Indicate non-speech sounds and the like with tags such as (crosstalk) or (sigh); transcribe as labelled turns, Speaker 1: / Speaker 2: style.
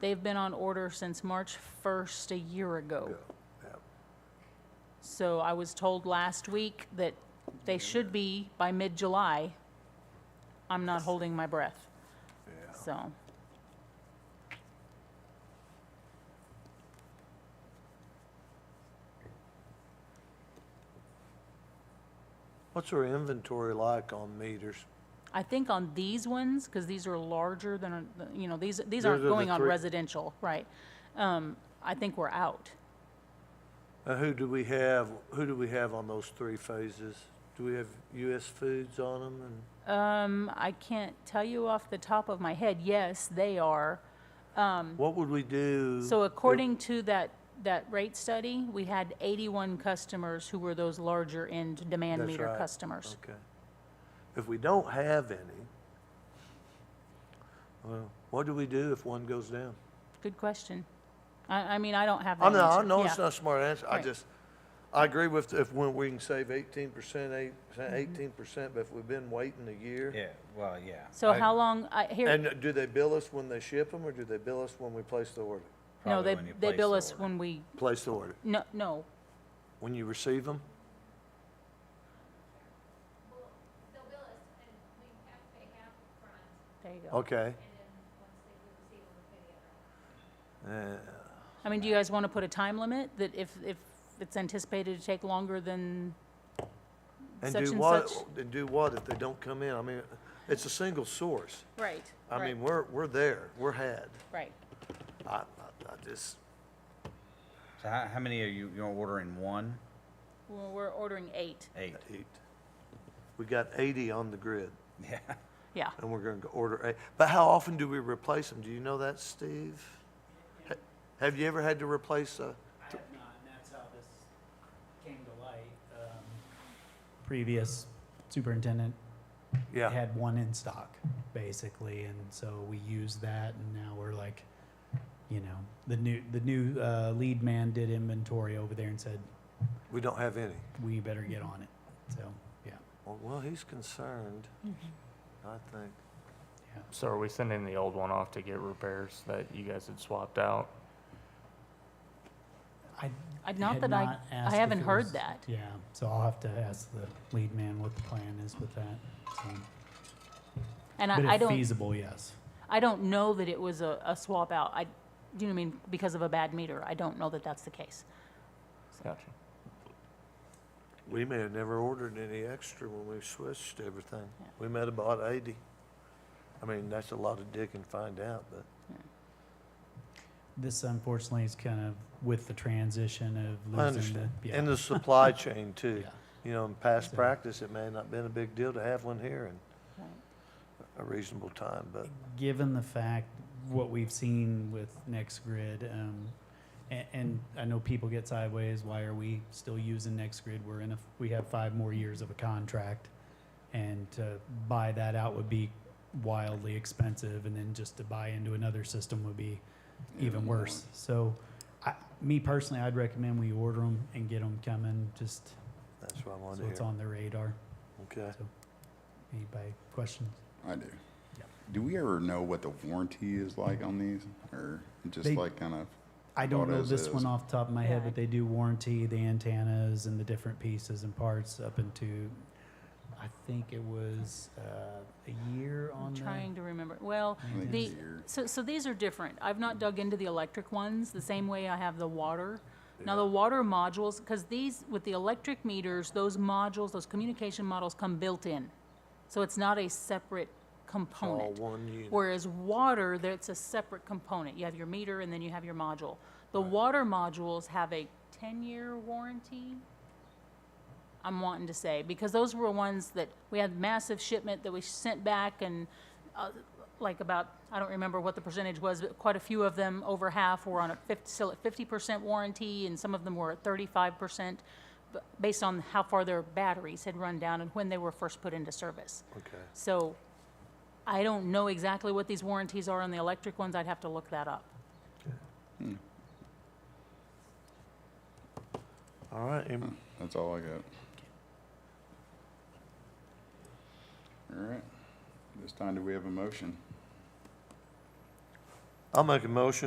Speaker 1: They've been on order since March 1st a year ago. So I was told last week that they should be by mid-July. I'm not holding my breath, so.
Speaker 2: What's our inventory like on meters?
Speaker 1: I think on these ones, because these are larger than, you know, these, these aren't
Speaker 2: Those are the
Speaker 1: going on
Speaker 2: three-
Speaker 1: residential, right? Um, I think we're out.
Speaker 2: Uh, who do we have, who do we have on those three phases? Do we have US Foods on them and?
Speaker 1: Um, I can't tell you off the top of my head. Yes, they are.
Speaker 2: What would we do?
Speaker 1: Mm-hmm. So
Speaker 2: if-
Speaker 1: according to that, that rate study, we had 81 customers who were those larger end demand
Speaker 2: That's
Speaker 1: meter
Speaker 2: right.
Speaker 1: customers.
Speaker 2: Okay. If we don't have any, well, what do we do if one goes down?
Speaker 1: Good question. I, I mean, I don't have that
Speaker 2: I
Speaker 1: answer.
Speaker 2: know, I know Oh, it's
Speaker 1: Yeah.
Speaker 2: not a smart answer, I
Speaker 1: Right.
Speaker 2: just, I agree with if, when we can save eighteen percent, eight,
Speaker 1: Mm-hmm.
Speaker 2: eighteen percent, but if we've been waiting a year.
Speaker 3: Yeah, well, yeah.
Speaker 1: So
Speaker 3: I-
Speaker 1: how long, I, here,
Speaker 2: And do they bill us when they ship them, or do they bill us when we place the order?
Speaker 1: no,
Speaker 3: probably
Speaker 1: they,
Speaker 3: when you
Speaker 1: they
Speaker 3: place
Speaker 1: bill
Speaker 3: the
Speaker 1: us
Speaker 3: order.
Speaker 1: when we,
Speaker 2: Place the order.
Speaker 1: no, no,
Speaker 2: When you receive them?
Speaker 4: They'll bill us and we have to pay half upfront
Speaker 1: there you go.
Speaker 2: Okay.
Speaker 4: and then once they receive them, we pay the other.
Speaker 2: Uh,
Speaker 1: I mean, do you guys want to put a time limit that if, if it's anticipated to take longer than
Speaker 2: And
Speaker 1: Such
Speaker 2: do
Speaker 1: and
Speaker 2: what,
Speaker 1: such.
Speaker 2: and do what if they don't come in? I mean, it's a single source.
Speaker 1: Right.
Speaker 2: I
Speaker 1: right,
Speaker 2: mean, we're, we're there, we're had.
Speaker 1: Right.
Speaker 2: I, I- I just,
Speaker 3: So how, how many are you, you're ordering one,
Speaker 1: Well, we're ordering eight.
Speaker 3: eight?
Speaker 2: eight. We got eighty on the grid,
Speaker 3: (laughs) Yeah,
Speaker 1: Yeah.
Speaker 2: and we're gonna go order eight. But how often do we replace them? Do you know that, Steve? Ha- Have you ever had to replace a,
Speaker 5: I have not, and that's how this came to light. Um, Previous superintendent
Speaker 2: yeah,
Speaker 5: had one in stock, basically, and so we used that, and now we're like, you know, the new, the new uh, lead man did inventory over there and said,
Speaker 2: we don't have any.
Speaker 5: we better get on it, so, yeah,
Speaker 2: Well, Well, he's concerned, I think.
Speaker 5: yeah.
Speaker 6: So are we sending the old one off to get repairs that you guys had swapped out?
Speaker 5: I
Speaker 1: I- Not
Speaker 5: had
Speaker 1: that I,
Speaker 5: not
Speaker 1: I
Speaker 5: asked if
Speaker 1: haven't
Speaker 5: it
Speaker 1: heard
Speaker 5: was-
Speaker 1: that.
Speaker 5: Yeah, so I'll have to ask the lead man what the plan is with that, so.
Speaker 1: And
Speaker 5: But
Speaker 1: I, I
Speaker 5: if
Speaker 1: don't,
Speaker 5: feasible, yes.
Speaker 1: I don't know that it was a, a swap out. I, do you know what I mean? Because of a bad meter. I don't know that that's the case.
Speaker 6: Gotcha.
Speaker 2: We may have never ordered any extra when we switched everything.
Speaker 1: Yeah.
Speaker 2: We might have bought eighty. I mean, that's a lot of dig and find out, but
Speaker 5: This unfortunately is kind of with the transition of
Speaker 2: I
Speaker 5: losing
Speaker 2: understand.
Speaker 5: the.
Speaker 2: And the
Speaker 5: (laughs)
Speaker 2: supply chain too.
Speaker 5: Yeah.
Speaker 2: You know, in past
Speaker 5: So-
Speaker 2: practice, it may have not been a big deal to have one here in
Speaker 1: Right.
Speaker 2: a reasonable time, but
Speaker 5: Given the fact, what we've seen with NextGrid, um, and, and I know people get sideways, why are we still using NextGrid? We're in a, we have five more years of a contract. And to buy that out would be wildly expensive, and then just to buy into another system would be even worse. So, I, me personally, I'd recommend we order them and get them coming, just
Speaker 2: that's what I
Speaker 5: so
Speaker 2: wanted to
Speaker 5: it's
Speaker 2: hear.
Speaker 5: on the radar.
Speaker 2: Okay.
Speaker 5: Anybody questions?
Speaker 7: I do.
Speaker 5: Yeah.
Speaker 7: Do we ever know what the warranty is like on these, or just
Speaker 5: They-
Speaker 7: like kind of?
Speaker 5: I don't know
Speaker 7: Autos
Speaker 5: this one
Speaker 7: is-
Speaker 5: off the top of my
Speaker 1: Yeah,
Speaker 5: head,
Speaker 1: I-
Speaker 5: but they do warranty the antennas and the different pieces and parts up into, I think it was uh, a year on
Speaker 1: I'm
Speaker 5: the.
Speaker 1: trying to remember. Well,
Speaker 7: I think
Speaker 1: the,
Speaker 7: it's a year.
Speaker 1: so, so these are different. I've not dug into the electric ones the same way I have the water. Now, the water modules, because these, with the electric meters, those modules, those communication models come built in. So it's not a separate component.
Speaker 2: All one unit.
Speaker 1: Whereas water, that's a separate component. You have your meter and then you have your module. The water modules have a ten-year warranty, I'm wanting to say, because those were ones that, we had massive shipment that we sent back and, uh, like about, I don't remember what the percentage was, but quite a few of them, over half, were on a fifty, still at fifty percent warranty, and some of them were at thirty-five percent, based on how far their batteries had run down and when they were first put into service.
Speaker 2: Okay.
Speaker 1: So I don't know exactly what these warranties are on the electric ones. I'd have to look that up.
Speaker 2: All right. em-
Speaker 7: That's all I got. All right. This time, do we have a motion?
Speaker 2: I'll make a motion